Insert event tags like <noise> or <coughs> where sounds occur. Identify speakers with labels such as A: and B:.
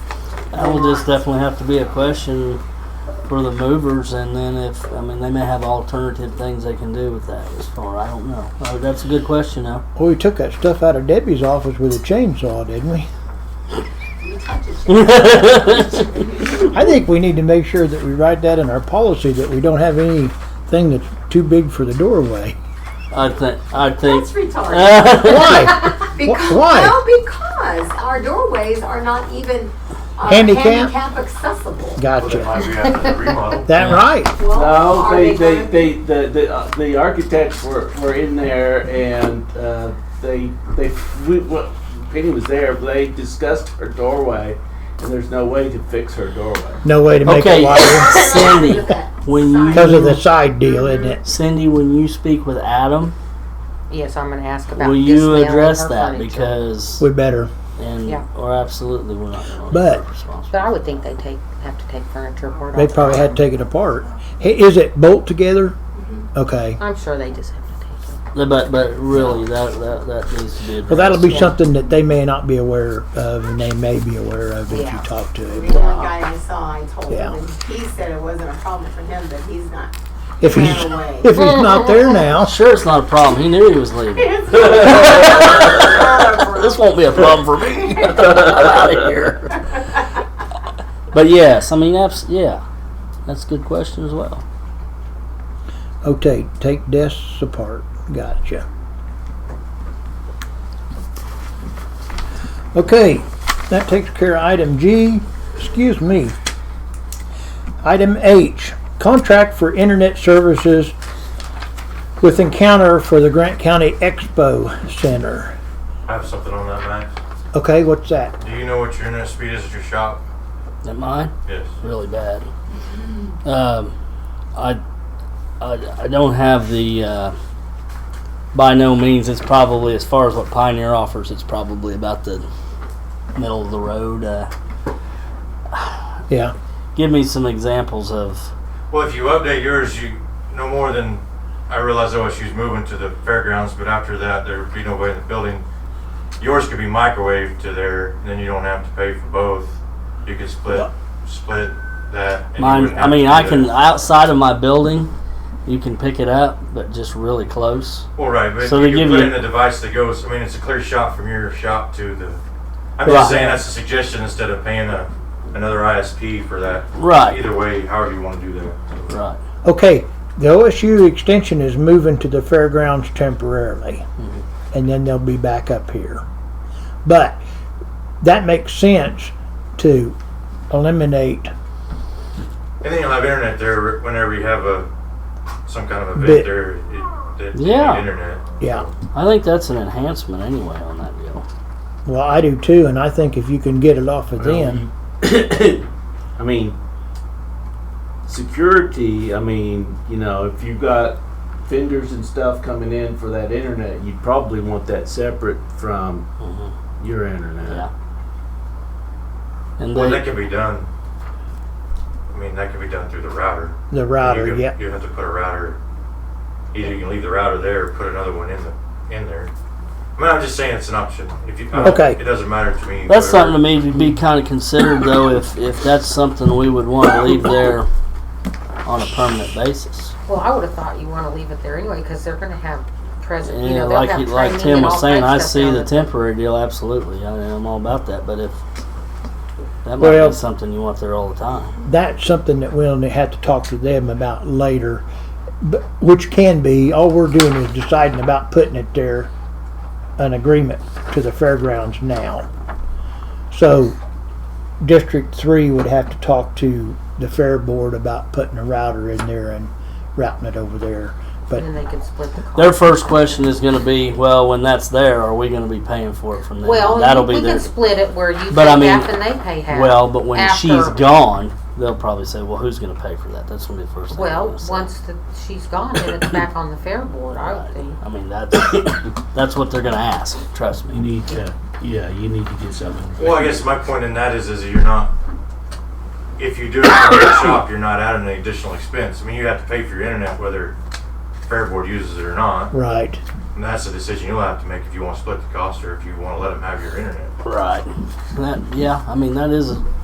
A: That will just definitely have to be a question for the movers, and then if, I mean, they may have alternative things they can do with that as far, I don't know. Uh, That's a good question though. <laughs>
B: Well, we took that stuff out of Debbie's office with a chainsaw, didn't we? Mm-hmm. I think we need to make sure that we write that in our policy that we don't have anything that's too big for the doorway.
A: I think, I think,
C: That's retarded.
A: <laughs> I
B: Why?
C: Because,
B: Uh, why?
C: Well, because our doorways are not even uh,
B: Handicap?
C: handicap accessible.
D: Well, they
B: <laughs> Gotcha.
D: might be after the remodel.
B: That right.
C: Well,
E: No,
C: are
E: they, they,
C: gonna-
E: they, the, the, uh, the architects were, were in there and, uh, they, they, we, well, Penny was there, but they discussed her doorway and there's no way to fix her doorway.
B: No way to make
A: Okay.
B: it wider
A: Sandy,
F: <laughs>
A: when you,
B: because of the side deal, isn't it?
A: Cindy, when you speak with Adam,
F: Yes, I'm going to ask about
A: will you
F: dismantling
A: address
F: her
A: that?
F: furniture.
A: Because,
B: We better.
A: and,
F: Yeah.
A: or absolutely, we're not gonna.
B: But-
F: But I would think they take have to take furniture apart.
B: They
F: all the
B: probably
F: time.
B: had to take it apart. Hey, is it bolt together? Okay.
F: I'm sure they just have to take it.
A: But, but really, that, that, that needs to be addressed.
B: Well, that'll be
F: Yeah.
B: something that they may not be aware of, and they may be aware of if you
F: Yeah.
B: talk to
C: The
B: them.
C: one guy I saw, I told
B: Yeah.
C: him, and he said it wasn't a problem for him, but he's not.
B: If he's
C: Ran away.
B: <laughs> if he's not there now.
A: Sure, it's not a problem, he knew he was leaving. this won't be a problem for me. I'm out of here. <laughs> But yes, I mean, abs- yeah, that's a good question as well.
B: Okay, take desks apart. Gotcha. Okay, that takes care of item G. Excuse me. Item H, contract for internet services with Encounter for the Grant County Expo Center.
D: I have something on that, Max.
B: Okay, what's that?
D: Do you know what your internet speed is at your shop?
A: Am mine?
D: Yes.
A: Really bad. Um, I, I, I don't have the. Uh, by no means, it's probably as far as what Pioneer offers. It's probably about the middle of the road. Uh,
B: Yeah,
A: give me some examples of.
D: Well, if you update yours, you no more than I realize OSU's moving to the fairgrounds, but after that, there would be no way in the building. Yours could be microwaved to there, and then you don't have to pay for both. You could split, split that. and you
A: Mine,
D: wouldn't
A: I
D: have
A: mean,
D: to do
A: I can
D: that.
A: outside of my building, you can pick it up, but just really close.
D: Well, right, but
A: So
D: you
A: they give
D: can put
A: you-
D: in a device that goes. I mean, it's a clear shot from your shop to the. I'm just
A: Right.
D: saying that's a suggestion instead of paying a, another ISP for that.
A: Right.
D: Either way, however you want to do that.
A: Right.
B: okay, the OSU extension is moving to the fairgrounds temporarily, and then they'll be back up here. But that makes sense to eliminate
D: And then you'll have internet there whenever you have a some kind of event
B: Bit.
D: there. It, that you
A: Yeah.
D: need internet.
B: Yeah,
A: I think that's an enhancement anyway on that deal.
B: well, I do too, and I think if you can get it off of them,
E: <coughs> I mean, security, I mean, you know, if you've got vendors and stuff coming in for that internet, you'd probably want that separate from
D: Mm-hmm.
E: your internet.
A: Yeah. And
D: Well, that
A: they,
D: can be done. I mean, that can be done through the router.
B: the
D: you
B: router,
D: could-
B: yeah,
D: You have to put a router. Either you can leave the router there or put another one in the in there. I mean, I'm just saying it's an option. If you I don't-
B: Okay.
D: it doesn't matter to me.
A: that's
D: whatever.
A: something to maybe be kind of considered though, if if that's something we would want to leave there on a permanent basis.
F: Well, I would have thought you want to leave it there anyway because they're going to have present.
A: And
F: you know, they'll
A: like
F: have
A: he- like
F: training
A: Tim
F: and
A: was
F: all
A: saying,
F: that
A: I
F: stuff
A: see
F: down
A: the
F: at-
A: temporary deal absolutely. I mean, I'm all about that, but if that might
B: Well-
A: be something you want there all the time.
B: that's something that we'll have to talk to them about later. But, which can be, all we're doing is deciding about putting it there, an agreement to the fairgrounds now. So District Three would have to talk to the fair board about putting a router in there and routing it over there. But
F: And then they can split the cost.
A: Their first question is going to be, well, when that's there, are we going to be paying for it from them?
F: Well,
A: That'll be
F: we can
A: their
F: split it where you
A: But
F: pay
A: I mean-
F: half and they pay half.
A: Well, but when
F: after-
A: she's gone, they'll probably say, "Well, who's going to pay for that?" That's going to be the first thing. they're
F: Well,
A: gonna say.
F: once the, she's gone, then it's back on the fair board, I would think.
A: I mean, that's <coughs> that's what they're going to ask. Trust
E: You
A: me.
E: need to, yeah, you need to get something.
D: Well, I guess my point in that is, is you're not. If you do it from
B: <coughs>
D: your shop, you're not adding an additional expense. I mean, you have to pay for your internet whether Fairboard uses it or not,
B: right,
D: and that's a decision you'll have to make if you want to split the cost or if you want to let them have your internet.
A: Right. That, yeah. I mean, that is